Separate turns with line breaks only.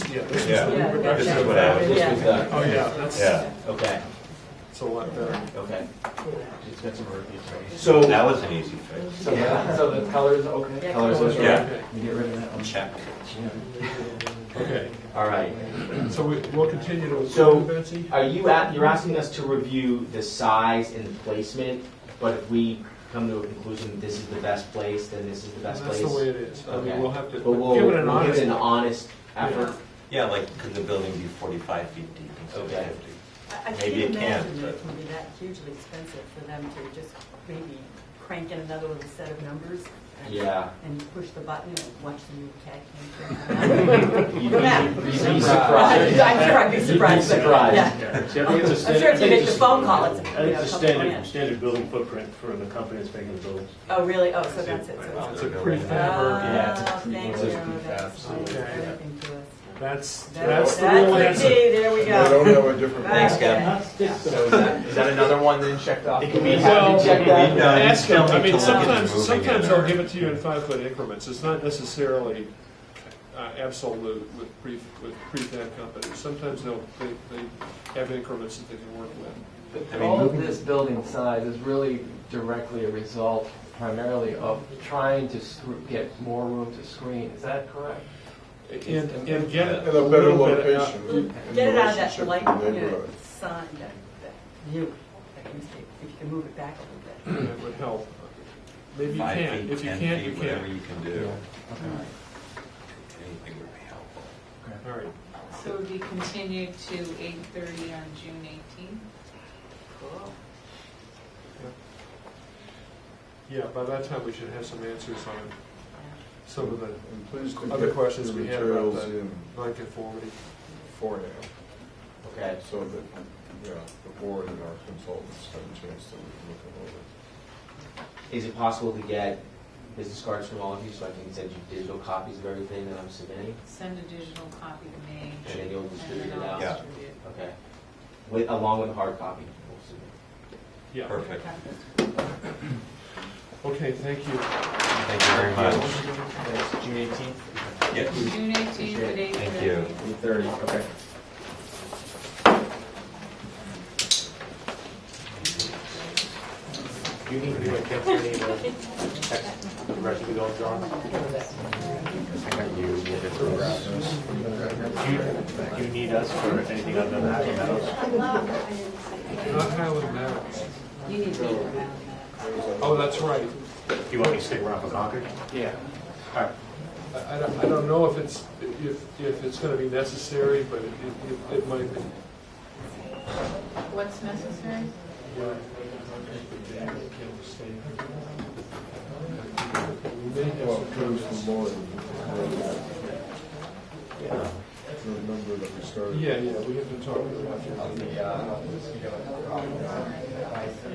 Yeah, this is
Yeah.
the new
This
production.
is what I was,
This was the,
Oh, yeah, that's,
yeah,
okay,
it's a lot better.
okay. It's got some reviews right
so.
That was an easy fix.
So, the- so the colors, okay?
Yeah,
Colors
colors.
are-
Yeah.
Okay,
You get rid of that one.
Check.
Okay,
All right.
so we, we'll continue to
So-
approve Betsy?
Are you, at- you're asking us to review the size and placement, but if we come to a conclusion, this is the best place, then this is the best
That's
place?
the way it is. I
Okay.
mean, we'll have to,
But we'll,
give it an
we'll give
honest.
it an honest effort.
Yeah, like, could the building be 45 feet deep instead
Okay.
of 50?
I I
Maybe
can't
it can,
imagine that it
but-
can be that hugely expensive for them to just maybe crank in another little set of numbers and-
Yeah.
and push the button and watch the new cat cam.
You'd be-
Go back.
you'd be
I'm
surprised.
sure I'd be surprised.
You'd be surprised.
Yeah.
See, I think it's a
I'm sure
standard.
if you make the phone call, it's,
I
you
think
know, a
it's a
couple of
standard,
minutes.
standard building footprint for the company that's making the buildings.
Oh, really? Oh, so that's it. so
Wow.
It's
it's-
a prefab or,
Yeah, it's a
Oh,
pre-
thank
it's a
you.
prefab,
That's
so-
everything to us.
that's,
That-
that's the real
the key.
answer.
There we
I
go.
have a different.
Thanks, Kevin.
So is that, is that another one then checked off?
It can be-
Well,
Have to check that?
we've done-
Ask them, I mean,
Still need to look into
sometimes,
moving
sometimes
it
they'll
or-
give it to you in five-foot increments. It's not necessarily uh, absolute with pre, with prefab companies. Sometimes they'll, they, they have increments that they can work with.
I mean,
All of
moving-
this building size is really directly a result primarily of trying to scr- get more room to screen, is that correct?
And, and get
And
a little bit out.
Get it out of that light, you know, sun, that, that view, that you see, if you can move it back a little bit.
That would help. Maybe you
Five
can,
feet,
if you
10
can't, you
feet, Whatever
can.
you can do. Anything would be helpful.
All right.
So we continued to eight thirty on June eighteenth.
Cool.
Yeah, by that time, we should have some answers on some of the
And please do
Other
get
questions
your
we had about
materials
that.
in
nonconformity.
for now,
Okay.
so that, yeah, the board and our consultants have a chance to look it over.
Is it possible to get business cards from all of you so I can send you digital copies of everything that I'm submitting?
Send a digital copy to me.
And then you'll distribute
and then
it
I'll
out?
Yeah.
distribute it.
Okay. With, along with a hard copy. we'll submit.
Yeah.
Perfect.
Okay, thank you.
Thank you very much.
That's June eighteenth,
Yes.
June eighteenth at eight
Thank
thirty.
you.
eight thirty, okay.
You need to text me, or text the rest of the dogs on. You, you need us for anything other than Happy Meadows?
Not Highland Meadows.
You need to.
Oh, that's right.
You want me to stick around for Concord?
Yeah.
All right.
I I don't, I don't know if it's, if, if it's gonna be necessary, but it, it- it might be.
What's necessary?
We may have
Well,
some
comes
comments.
from Lauren. Remember that we started.
Yeah, yeah, we have been talking about that.